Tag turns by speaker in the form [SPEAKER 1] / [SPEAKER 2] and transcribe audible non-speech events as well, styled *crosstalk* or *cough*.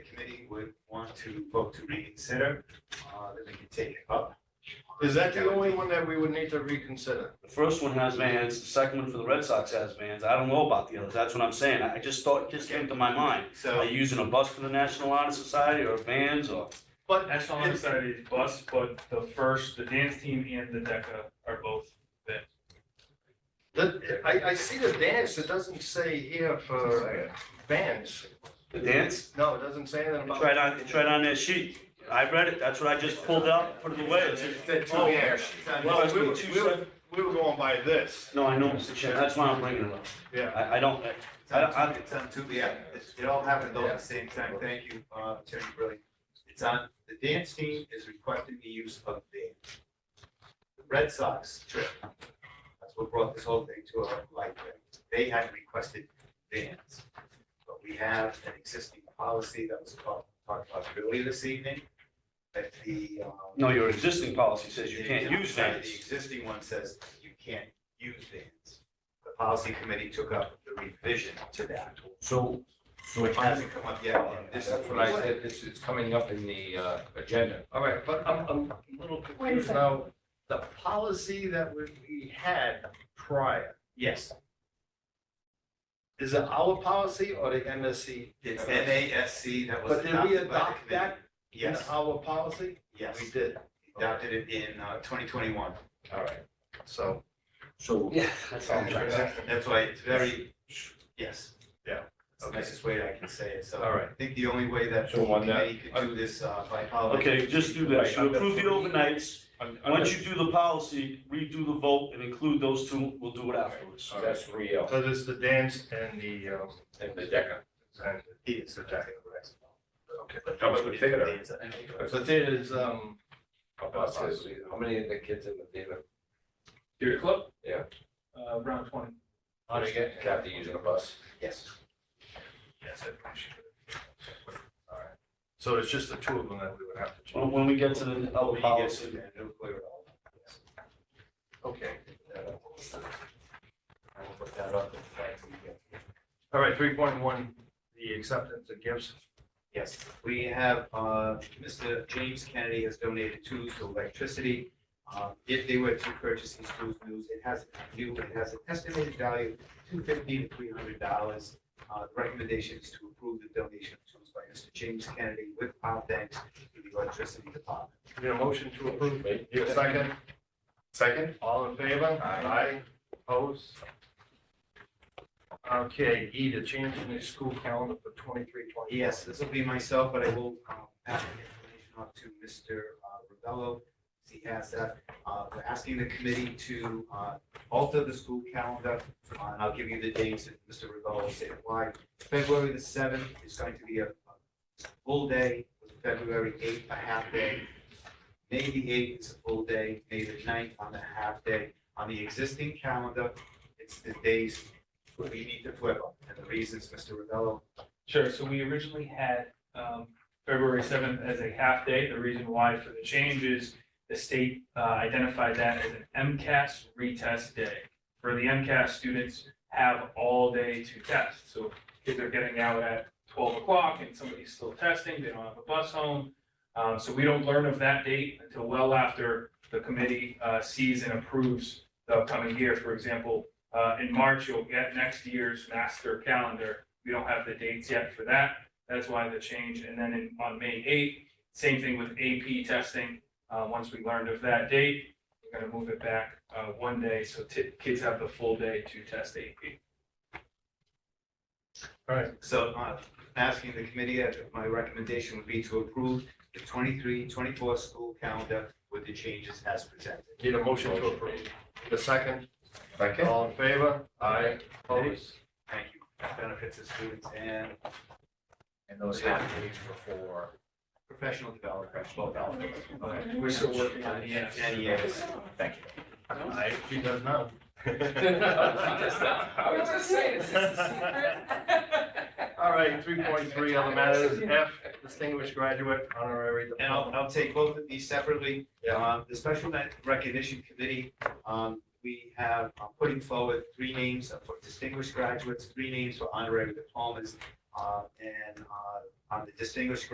[SPEAKER 1] would want to vote to reconsider, uh, then we can take it up.
[SPEAKER 2] Is that the only one that we would need to reconsider?
[SPEAKER 3] The first one has vans, the second one for the Red Sox has vans. I don't know about the others. That's what I'm saying. I I just thought, just came to my mind. Are
[SPEAKER 1] So,
[SPEAKER 3] you using a bus for the National Honor Society or vans or?
[SPEAKER 2] But
[SPEAKER 4] National Honor Society is bus, but the first, the dance team and the DECA are both there.
[SPEAKER 2] the, I, I see the dance, it doesn't say here for bands.
[SPEAKER 3] The dance?
[SPEAKER 2] No, it doesn't say anything
[SPEAKER 3] It's
[SPEAKER 2] about.
[SPEAKER 3] right on, it's right on that sheet. I read it. That's what I just pulled out, put it away. It's-
[SPEAKER 2] Oh, yeah. Well, we were,
[SPEAKER 3] Two
[SPEAKER 2] we were, we were going by this.
[SPEAKER 3] No, I know, Mr. Chair. That's why I'm bringing it up.
[SPEAKER 2] Yeah.
[SPEAKER 3] I, I don't,
[SPEAKER 1] it's on, it's on two, yeah, it's- it all happened all at the same time, thank you, uh, Attorney Brilli. It's on, the dance team is requesting the use of the the Red Sox trip. That's what brought this whole thing to a light, they had requested vans. But we have an existing policy that was talked, talked about earlier this evening, that the, um,
[SPEAKER 3] no, your existing policy says you can't use
[SPEAKER 1] Sorry,
[SPEAKER 3] vans.
[SPEAKER 1] The existing one says you can't use vans. The policy committee took up the revision to that,
[SPEAKER 5] So, so
[SPEAKER 1] which
[SPEAKER 5] it has,
[SPEAKER 1] hasn't come up yet. and
[SPEAKER 5] that's
[SPEAKER 1] This
[SPEAKER 5] what I said, this is coming up in the, uh, agenda.
[SPEAKER 2] All right, but I'm, I'm a little confused
[SPEAKER 6] second.
[SPEAKER 2] now. The policy that we, we had prior,
[SPEAKER 1] Yes,
[SPEAKER 2] is it our policy or the MSC?
[SPEAKER 1] it's NASC that was
[SPEAKER 2] But did we
[SPEAKER 1] adopted by the
[SPEAKER 2] adopt
[SPEAKER 1] committee.
[SPEAKER 2] that in uh,
[SPEAKER 1] Yes,
[SPEAKER 2] our policy?
[SPEAKER 1] yes,
[SPEAKER 2] We did,
[SPEAKER 1] adopted it in uh, twenty twenty-one.
[SPEAKER 2] all right, so.
[SPEAKER 5] So,
[SPEAKER 3] Yeah, that's all I'm trying to say.
[SPEAKER 1] That's why it's very, yes.
[SPEAKER 2] Yeah,
[SPEAKER 1] It's the
[SPEAKER 2] okay.
[SPEAKER 1] nicest way I can say it, so.
[SPEAKER 2] All right.
[SPEAKER 1] I think the only way that the
[SPEAKER 5] So on that-
[SPEAKER 1] committee could do this uh, by policy.
[SPEAKER 3] Okay, just do that. So approve the overnights.
[SPEAKER 5] I'm- I'm
[SPEAKER 3] Once
[SPEAKER 5] gonna-
[SPEAKER 3] you do the policy, redo the vote and include those two. We'll do it afterwards.
[SPEAKER 5] so that's three L
[SPEAKER 2] So there's the dance and the, um,
[SPEAKER 5] in the DECA.
[SPEAKER 2] and,
[SPEAKER 1] He is exactly correct.
[SPEAKER 2] okay.
[SPEAKER 5] How about the theater?
[SPEAKER 2] So theater is, um,
[SPEAKER 5] About this, How many of the kids in the theater
[SPEAKER 4] Your club?
[SPEAKER 5] Yeah.
[SPEAKER 4] Uh, round twenty.
[SPEAKER 5] are they getting Kathy using a bus?
[SPEAKER 1] Yes.
[SPEAKER 2] yes, I appreciate it. All right, so it's just the two of them that we would have to
[SPEAKER 3] When,
[SPEAKER 2] change.
[SPEAKER 3] when we get to the other
[SPEAKER 1] When he gets
[SPEAKER 3] policy.
[SPEAKER 1] to that, it'll clear it all.
[SPEAKER 2] Okay.
[SPEAKER 1] I will put that up in fact, we get-
[SPEAKER 2] All right, three point one, the acceptance of gifts.
[SPEAKER 1] Yes, we have, uh, Mr. James Kennedy has donated tools to electricity. Uh, If they were to purchase these tools, news, it has, it has an estimated value of two fifty to three hundred dollars. Uh, the recommendation is to approve the donation of tools by Mr. James Kennedy with our thanks to the electricity department.
[SPEAKER 2] Need a motion to approve?
[SPEAKER 5] Wait.
[SPEAKER 2] Need a second? Second. All in favor? Aye. Opposed? Okay, E, the change in the school calendar for twenty-three, twenty-four.
[SPEAKER 1] Yes, this will be myself, but I will um, pass the information off to Mr. Ravello. He has that. Uh, We're asking the committee to uh, alter the school calendar, uh, and I'll give you the dates that Mr. Ravello will say why. February the seventh is going to be a a full day, with February eighth, a half day. May the eighth is a full day, May the ninth on the half day. On the existing calendar, it's the days we need to flip them, and the reasons, Mr. Ravello
[SPEAKER 4] Sure, so we originally had, um, February seventh as a half day. The reason why for the change is the state, uh, identified that as an MCAS retest day. For the MCAS, students have all day to test, so if they're getting out at twelve o'clock and somebody's still testing, they don't have a bus home. Um, so we don't learn of that date until well after the committee, uh, sees and approves the upcoming year. For example, uh, in March, you'll get next year's master calendar, we don't have the dates yet for that. That's why the change. And then in, on May eighth, same thing with AP testing. Uh, once we learned of that date, we're gonna move it back, uh, one day, so ti- kids have the full day to test AP.
[SPEAKER 1] So uh, asking the committee, uh, my recommendation would be to approve the 23-24 school calendar with the changes as presented.
[SPEAKER 2] Need a motion to approve. The second,
[SPEAKER 5] Second.
[SPEAKER 2] all in favor? Aye. Opposed?
[SPEAKER 1] Thank you. Benefits of students and
[SPEAKER 5] And those half days before.
[SPEAKER 1] professional development. both elements.
[SPEAKER 5] Okay.
[SPEAKER 4] We're still working on the
[SPEAKER 1] And
[SPEAKER 4] end.
[SPEAKER 1] and yes,
[SPEAKER 5] Thank
[SPEAKER 2] Aye. She does not.
[SPEAKER 5] *laughs*
[SPEAKER 6] I was gonna say, is this a
[SPEAKER 2] *laughs* All right, three point three, other matters, F, distinguished graduate honorary.
[SPEAKER 1] and I'll,
[SPEAKER 2] diploma.
[SPEAKER 1] I'll take both of these separately.
[SPEAKER 2] Yeah.
[SPEAKER 1] Uh, The special Ed recognition committee, um, we have uh, putting forward three names for distinguished graduates, three names for honorary diplomas. uh, And uh, on the distinguished